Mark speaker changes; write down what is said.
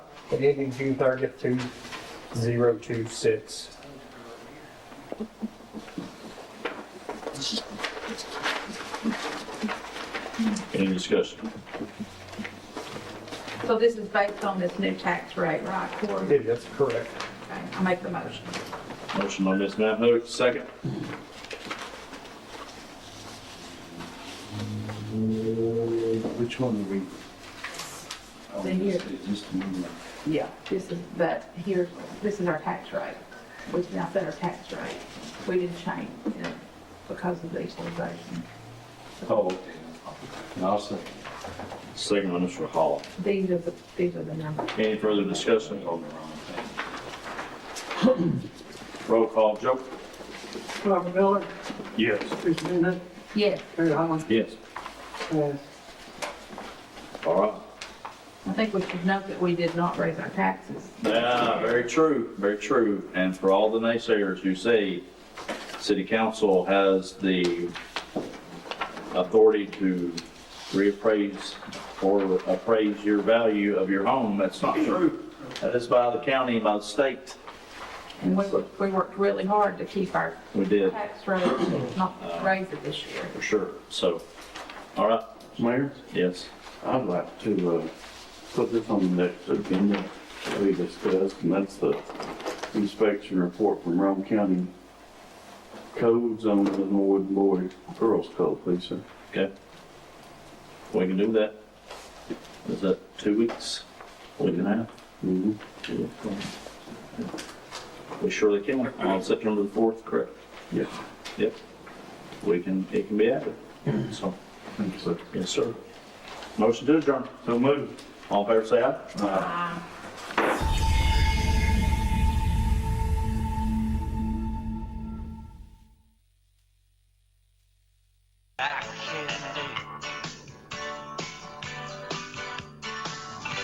Speaker 1: and ending June 30th, 2026.
Speaker 2: Any discussion?
Speaker 3: So this is based on this new tax rate, right, Corey?
Speaker 1: Yeah, that's correct.
Speaker 3: Okay, I make the motion.
Speaker 2: Motion by Ms. Matheson, second.
Speaker 4: Which one are we? Oh,
Speaker 3: The year.
Speaker 4: this is Just a minute.
Speaker 3: Yeah. This is, but here, this is our tax rate. We now set our tax rate. We didn't change it because of the equalization.
Speaker 4: Oh, okay. And I'll say,
Speaker 2: Second by Mr. Hall.
Speaker 3: These are the, these are the numbers.
Speaker 2: Any further discussion?
Speaker 4: on the wrong thing.
Speaker 2: Roll call, Joe?
Speaker 5: Robert Miller,
Speaker 2: Yes.
Speaker 5: Teresa Bennett,
Speaker 3: Yes,
Speaker 5: Terry Holland,
Speaker 2: Yes.
Speaker 5: pass.
Speaker 2: All right.
Speaker 3: I think we should note that we did not raise our taxes.
Speaker 2: Yeah, very true, very true. And for all the naysayers who say city council has the authority to reappraise or appraise your value of your home, that's not true. That is by the county, by the state.
Speaker 3: And we, wor- we worked really hard to keep our
Speaker 2: We did,
Speaker 3: tax rate, not raise it this year.
Speaker 2: for sure. So, all right,
Speaker 6: Mayor,
Speaker 2: yes.
Speaker 6: I'd like to, uh, put this on the next agenda that we discussed, and that's the inspection report from Rome County codes on the Norwood Boyd Earl's Code, please, sir.
Speaker 2: Okay. We can do that. Is that two weeks? Week and a half?
Speaker 6: Mhm.
Speaker 2: We surely can, on September the fourth, correct?
Speaker 6: Yes,
Speaker 2: Yep. We can, it can be added. So,
Speaker 6: thank you, Mm-hmm. sir.
Speaker 2: yes, sir. Motion to adjourn.
Speaker 6: So moved.
Speaker 2: All in favor, say aye.
Speaker 3: Uh,